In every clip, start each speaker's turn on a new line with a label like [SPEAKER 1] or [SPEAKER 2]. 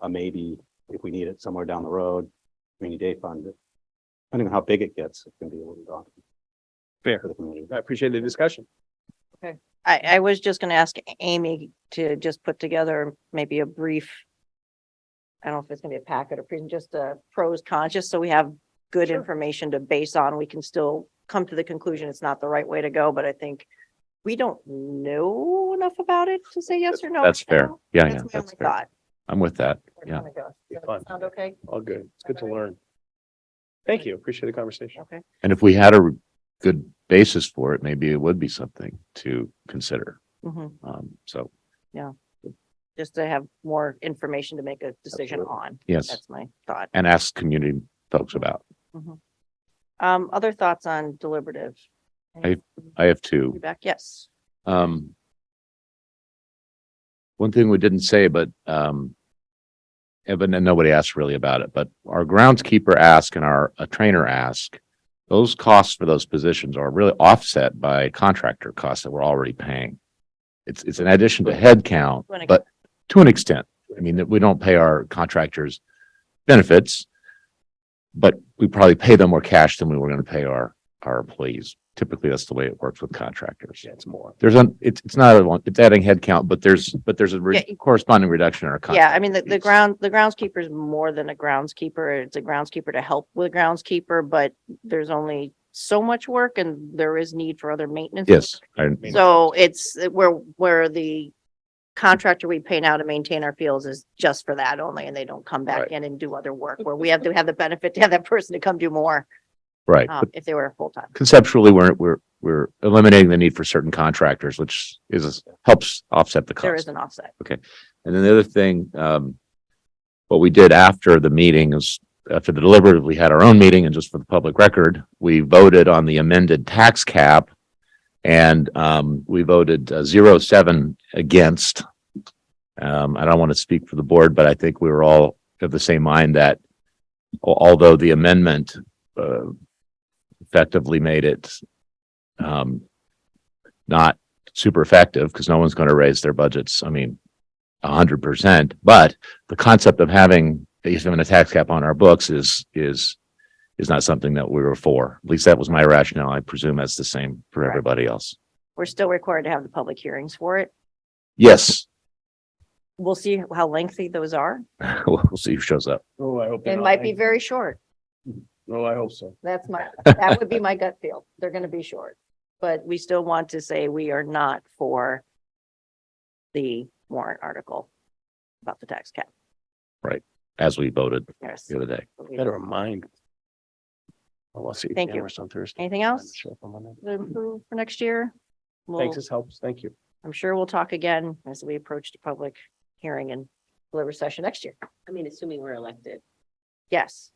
[SPEAKER 1] a maybe if we need it somewhere down the road, rainy day fund. Depending on how big it gets, it can be a little daunting.
[SPEAKER 2] Fair.
[SPEAKER 1] For the community.
[SPEAKER 2] I appreciate the discussion.
[SPEAKER 3] I, I was just gonna ask Amy to just put together maybe a brief. I don't know if it's gonna be a packet or present, just a pros cons, just so we have good
[SPEAKER 2] Sure.
[SPEAKER 3] information to base on. We can still come to the conclusion it's not the right way to go, but I think we don't know enough about it to say yes or no.
[SPEAKER 4] That's
[SPEAKER 3] right
[SPEAKER 4] fair.
[SPEAKER 3] now.
[SPEAKER 4] Yeah, yeah,
[SPEAKER 3] That's my
[SPEAKER 4] that's
[SPEAKER 3] only
[SPEAKER 4] fair.
[SPEAKER 3] thought.
[SPEAKER 4] I'm with that.
[SPEAKER 3] We're
[SPEAKER 4] Yeah.
[SPEAKER 3] gonna go.
[SPEAKER 2] Be
[SPEAKER 3] Does that
[SPEAKER 2] fun.
[SPEAKER 3] Sound okay?
[SPEAKER 2] All good. It's good to learn. Thank you. Appreciate the conversation.
[SPEAKER 3] Okay.
[SPEAKER 4] And if we had a good basis for it, maybe it would be something to consider.
[SPEAKER 3] Mhm.
[SPEAKER 4] Um, so
[SPEAKER 3] Just to have more information to make a decision
[SPEAKER 1] Absolutely.
[SPEAKER 3] on.
[SPEAKER 4] yes,
[SPEAKER 3] That's my thought.
[SPEAKER 4] and ask community folks about.
[SPEAKER 3] Um, other thoughts on deliberative?
[SPEAKER 4] I- I have two.
[SPEAKER 3] Feedback? Yes.
[SPEAKER 4] Um. One thing we didn't say, but, um. Evan, and nobody asked really about it, but our groundskeeper ask and our, a trainer ask. Those costs for those positions are really offset by contractor costs that we're already paying. It's, it's an addition to headcount,
[SPEAKER 3] To an ex-
[SPEAKER 4] but to an extent. I mean, that we don't pay our contractors benefits. But we probably pay them more cash than we were gonna pay our, our employees. Typically, that's the way it works with contractors
[SPEAKER 2] Yeah, it's more.
[SPEAKER 4] there's an, it's, it's not, a one- it's adding headcount, but there's, but there's a re-
[SPEAKER 3] Yeah, you-
[SPEAKER 4] corresponding reduction in our.
[SPEAKER 3] Yeah,
[SPEAKER 4] contract
[SPEAKER 3] I mean, the, the
[SPEAKER 4] fees.
[SPEAKER 3] ground, the groundskeeper is more than a groundskeeper. It's a groundskeeper to help with groundskeeper, but there's only so much work and there is need for other maintenance.
[SPEAKER 4] Yes, I,
[SPEAKER 3] work. So it's uh, where, where the contractor we pay now to maintain our fields is just for that only, and they don't come back
[SPEAKER 2] Right.
[SPEAKER 3] in and do other work where we have to have the benefit to have that person to come do more,
[SPEAKER 4] right.
[SPEAKER 3] um,
[SPEAKER 4] But
[SPEAKER 3] if they were full-time.
[SPEAKER 4] Conceptually, we're, we're, we're eliminating the need for certain contractors, which is, helps offset the
[SPEAKER 3] There is
[SPEAKER 4] cost.
[SPEAKER 3] an offset.
[SPEAKER 4] And then the other thing, um, what we did after the meeting is, after the deliberative, we had our own meeting and just for the public record, we voted on the amended tax cap. And, um, we voted uh, zero seven against. Um, I don't want to speak for the board, but I think we were all of the same mind that al- although the amendment, uh, effectively made it, um, not super effective because no one's going to raise their budgets. I mean, a hundred percent, but the concept of having, even a tax cap on our books is, is, is not something that we were for. At least that was my rationale. I presume that's the same for
[SPEAKER 3] Right.
[SPEAKER 4] everybody else.
[SPEAKER 3] We're still required to have the public hearings for it.
[SPEAKER 4] Yes,
[SPEAKER 3] We'll see how lengthy those are.
[SPEAKER 4] we'll see who shows up.
[SPEAKER 2] Oh, I hope. they're
[SPEAKER 3] It
[SPEAKER 2] not
[SPEAKER 3] might be
[SPEAKER 2] like-
[SPEAKER 3] very short.
[SPEAKER 2] Oh, I hope so.
[SPEAKER 3] That's my, that would be my gut feel. They're gonna be short. But we still want to say we are not for the warrant article about the tax cap.
[SPEAKER 4] As we voted
[SPEAKER 3] Yes.
[SPEAKER 4] the other day.
[SPEAKER 2] Better remind. Well, I'll see.
[SPEAKER 3] Thank you.
[SPEAKER 2] cameras on Thursday.
[SPEAKER 3] Anything
[SPEAKER 2] I'm
[SPEAKER 3] else?
[SPEAKER 2] sure if I'm on that.
[SPEAKER 3] To improve For next year. We'll,
[SPEAKER 2] Thanks, this helps. Thank you.
[SPEAKER 3] I'm sure we'll talk again as we approach the public hearing and deliver session next year.
[SPEAKER 5] I mean, assuming we're elected.
[SPEAKER 3] Yes.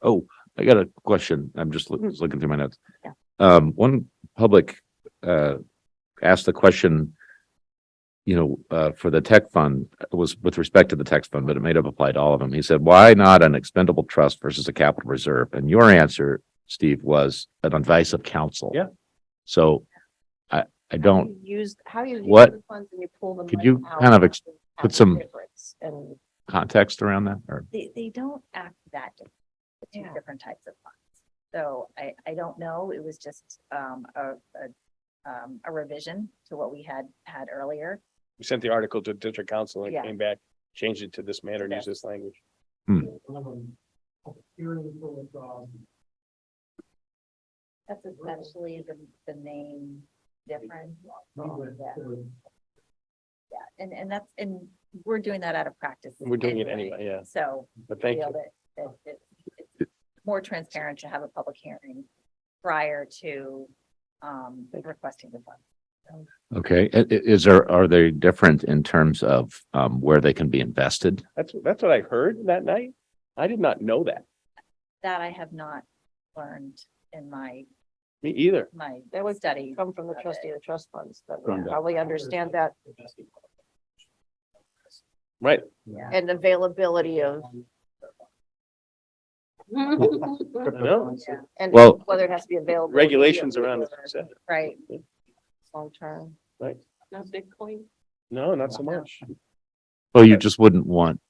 [SPEAKER 4] Oh, I got a question. I'm just loo-
[SPEAKER 3] Mhm.
[SPEAKER 4] just looking through my notes.
[SPEAKER 3] Yeah.
[SPEAKER 4] Um, one public, uh, asked the question, you know, uh, for the tech fund it was with respect to the tech fund, but it may have applied to all of them. He said, why not an expendable trust versus a capital reserve? And your answer, Steve, was an advice of counsel.
[SPEAKER 2] Yeah.
[SPEAKER 4] So I, I don't
[SPEAKER 3] Use, how you. use
[SPEAKER 4] What-
[SPEAKER 3] the funds and you pull them.
[SPEAKER 4] could you kind of ex- put some-
[SPEAKER 3] And
[SPEAKER 4] context around that or?
[SPEAKER 6] they, they don't act that different, the two
[SPEAKER 3] Yeah.
[SPEAKER 6] different types of funds. So I, I don't know, it was just, um, a, a, um, a revision to what we had, had earlier.
[SPEAKER 2] We sent the article to district council and it
[SPEAKER 6] Yeah.
[SPEAKER 2] came back, changed it to this manner, and
[SPEAKER 6] Okay.
[SPEAKER 2] used this language.
[SPEAKER 6] That's essentially the, the main difference. Yeah. Yeah, and, and that's, and we're doing that out of practice.
[SPEAKER 2] We're doing it anyway, yeah.
[SPEAKER 6] So
[SPEAKER 2] But
[SPEAKER 6] I
[SPEAKER 2] thank
[SPEAKER 6] feel
[SPEAKER 2] you.
[SPEAKER 6] that, that it- it's more transparent to have a public hearing prior to, um, requesting the funds.
[SPEAKER 4] Okay, I- i- is there, are they different in terms of, um, where they can be invested?
[SPEAKER 2] That's, that's what I heard that night. I did not know that.
[SPEAKER 6] That I have not learned in my
[SPEAKER 2] Me either.
[SPEAKER 6] my
[SPEAKER 3] That would
[SPEAKER 6] study.
[SPEAKER 3] come from the
[SPEAKER 6] of it.
[SPEAKER 3] trustee of the trust funds that
[SPEAKER 1] From
[SPEAKER 3] would
[SPEAKER 1] the-
[SPEAKER 3] probably understand that
[SPEAKER 2] Right.
[SPEAKER 3] and availability of
[SPEAKER 2] No.
[SPEAKER 6] Yeah,
[SPEAKER 3] And
[SPEAKER 4] Well-
[SPEAKER 3] whether it has to be available.
[SPEAKER 2] Regulations around this.
[SPEAKER 6] Right.
[SPEAKER 3] Long term.
[SPEAKER 5] Not Bitcoin.
[SPEAKER 2] No, not so much.
[SPEAKER 4] Well, you just wouldn't want